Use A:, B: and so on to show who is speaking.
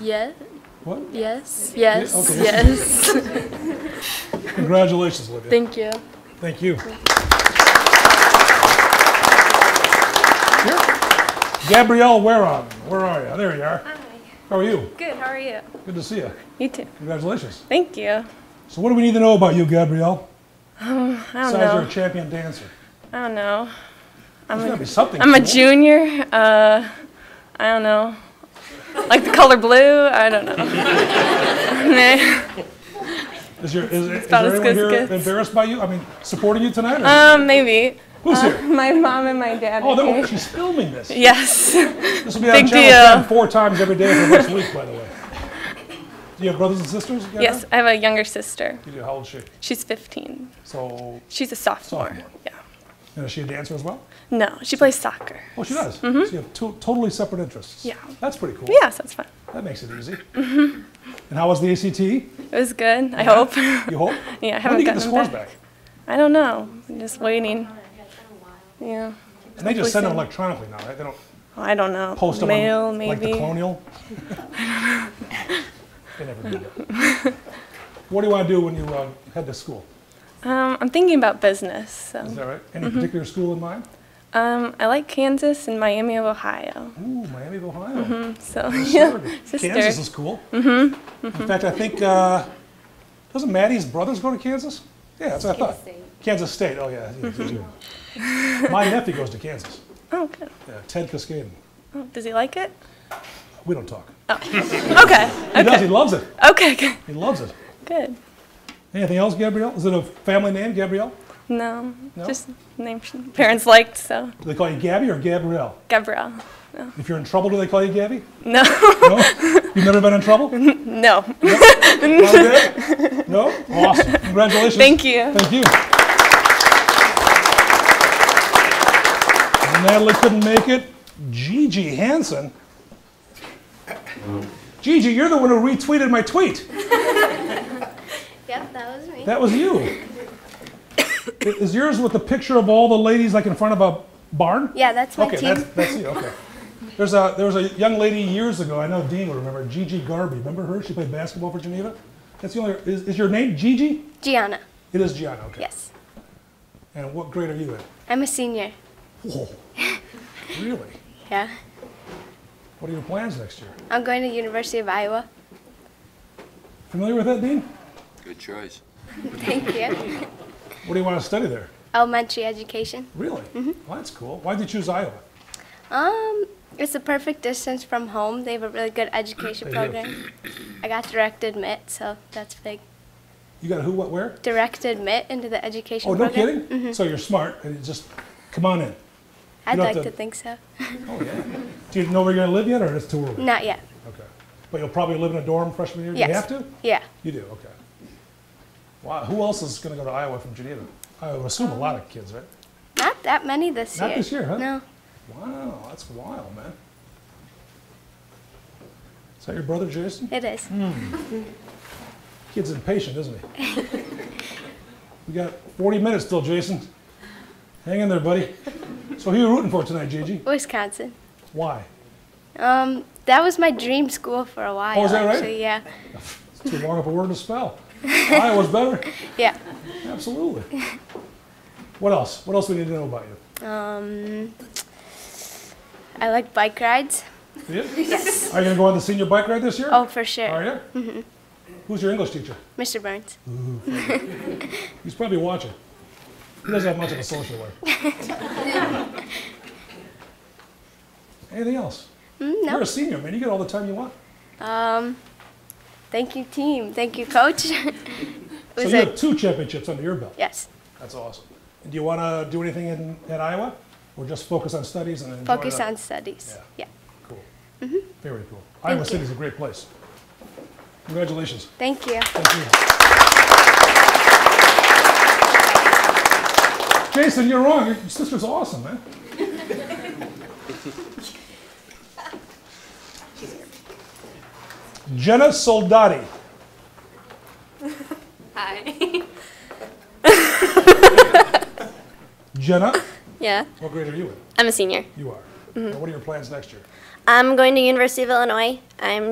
A: Yes.
B: What?
A: Yes.
B: Yes,
A: Yes. Yes.
B: Congratulations, Olivia.
A: Thank you.
B: Thank you. Gabrielle Wareham, where are you? There you are. Hi. How are you?
C: Good, how are you?
B: Good to see you.
C: You too.
B: Congratulations.
C: Thank you.
B: So what do we need to know about you, Gabrielle?
C: Um, I don't
B: Besides you're a
C: know.
B: champion dancer.
C: I don't know.
B: There's gotta be something.
C: I'm a junior. Uh, I don't know. Like the color blue? I don't know. Nah.
B: Is your, is, is
C: about
B: there
C: as
B: anyone
C: good as
B: here
C: gets.
B: embarrassed by you? I mean, supporting you tonight? or-
C: um, maybe.
B: Who's
C: Uh,
B: here?
C: my mom and my dad.
B: Oh,
C: are
B: no,
C: here.
B: she's filming this.
C: Yes.
B: This will be on
C: Big
B: Channel 10
C: deal.
B: four times every day for the next week, by the way. Do you have brothers and sisters? Gabrielle?
C: Yes, I have a younger sister.
B: You do. How old is she?
C: She's 15.
B: So,
C: She's a sophomore.
B: Sophomore.
C: Yeah.
B: and is she a dancer as well?
C: No, she plays soccer.
B: Oh, she does. So you have two totally separate interests.
C: Mm-hmm. Yeah.
B: That's pretty cool.
C: Yeah, Mm-hmm. so it's fun.
B: That makes it easy. And how was the ACT? You
C: It was good, I hope.
B: hope?
C: yeah, I
B: When do
C: haven't
B: you get the
C: gotten
B: scores
C: them
B: back?
C: I don't know. I'm just waiting. Yeah.
B: And they just send them
C: soon.
B: electronically now, right? They don't
C: I don't know.
B: post them
C: Mail,
B: on, like the
C: maybe.
B: colonial? they never do that. What do you want to do when you uh, head to school?
C: um, I'm thinking about business. So.
B: Is that right?
C: Mm-hmm.
B: Any particular school in mind?
C: Um, I like Kansas and Miami of Ohio.
B: Ooh, Miami of Ohio.
C: Mm-hmm. So
B: Oh, Sure.
C: Sister. Mm-hmm.
B: Kansas is cool. In fact, I think, uh, doesn't Maddie's brothers go to Kansas? Yeah, that's what I thought. Kansas State, oh yeah. yeah,
C: Mm-hmm.
B: yeah. My nephew goes to Kansas,
C: oh, good.
B: Yeah, Ted Cascaden.
C: Oh, does he like it?
B: We don't talk.
C: Okay.
B: He does, he loves it.
C: Okay. Good.
B: He loves it.
C: good.
B: Anything else, Gabrielle? Is it a family name, Gabrielle?
C: No,
B: No?
C: just name sh- parents liked. So
B: Do they call you Gabby or Gabrielle?
C: Gabrielle.
B: If you're in trouble, do they call you Gabby?
C: No.
B: No? You've never been in trouble? Not
C: no.
B: yet? No? Awesome. Congratulations.
C: Thank you.
B: Thank you. Natalie couldn't make it. Gigi Hansen. Gigi, you're the one who retweeted my tweet.
A: Yep, that was me.
B: That was you. I- Is yours with the picture of all the ladies like in front of a barn?
A: Yeah, that's my
B: Okay,
A: team.
B: that's, that's you. Okay. There's a there was a young lady years ago. I know Dean would remember. Gigi Garby. Remember her? She played basketball for Geneva. That's the only. Is, is your name Gigi?
A: Gianna.
B: It is Gianna. Okay.
A: Yes.
B: And what grade are you in?
A: I'm a senior.
B: Whoa. really?
A: Yeah.
B: What are your plans next year?
A: I'm going to University of Iowa.
B: Familiar with that, Dean?
D: Good choice.
A: Thank you.
B: What do you want to study there?
A: Elementary education.
B: Really? Well, that's cool. Why'd you choose Iowa?
A: Um, it's a perfect distance from home. They have a really good education
B: They do.
A: program. I got direct admit, so that's big.
B: You got a who, what, where?
A: Direct admit into the education
B: Oh, no
A: program.
B: kidding? So you're smart and you just come on in.
A: I'd
B: don't
A: like
B: have
A: to
B: to-
A: think so.
B: Oh, yeah. do you know where you're going to live yet or it's too early?
A: Not yet.
B: Okay. But you'll probably live in a dorm freshman year? Do
A: Yes.
B: you have to?
A: Yeah.
B: You do, okay. Wow. Who else is going to go to Iowa from Geneva? I would assume a lot of kids, right?
A: Not that many this
B: Not
A: year.
B: this year, huh?
A: No.
B: Wow, that's wild, man. Is that your brother, Jason?
A: It is.
B: Kid's impatient, isn't he? we got 40 minutes still, Jason. Hang in there, buddy. So who you rooting for tonight, Gigi?
A: Wisconsin.
B: Why?
A: Um, that was my dream school for a while.
B: Oh, is that right?
A: actually. Yeah.
B: It's too long of a word to spell. Iowa's better.
A: Yeah.
B: Absolutely. What else? What else we need to know about you?
A: Um, I like bike rides.
B: you? Yes. Are you going to go on the senior bike ride this year?
A: Oh, for sure.
B: Are you? Who's your English teacher?
A: Mr. Burns.
B: He's probably watching. He doesn't have much of a social life. Anything else?
A: Mm,
B: You're
A: no.
B: a senior, man. You get all the time you want.
A: Um, thank you, team. Thank you, coach. It
B: So
A: was
B: you
A: a-
B: have two championships under your belt.
A: yes.
B: That's awesome. And do you want to do anything in, at Iowa, or just focus on studies and enjoy
A: Focus
B: the-
A: on studies. Yeah.
B: Yeah. Cool. Very cool. Iowa
A: you.
B: City is a great place. Congratulations.
A: Thank you.
B: Thank you. Jason, you're wrong. Your sister's awesome, man. Jenna Soldati.
E: Hi.
B: Jenna,
E: Yeah,
B: what grade are you in?
E: I'm a senior.
B: You are. Now, what are your plans next year?
E: I'm going to University of Illinois. I'm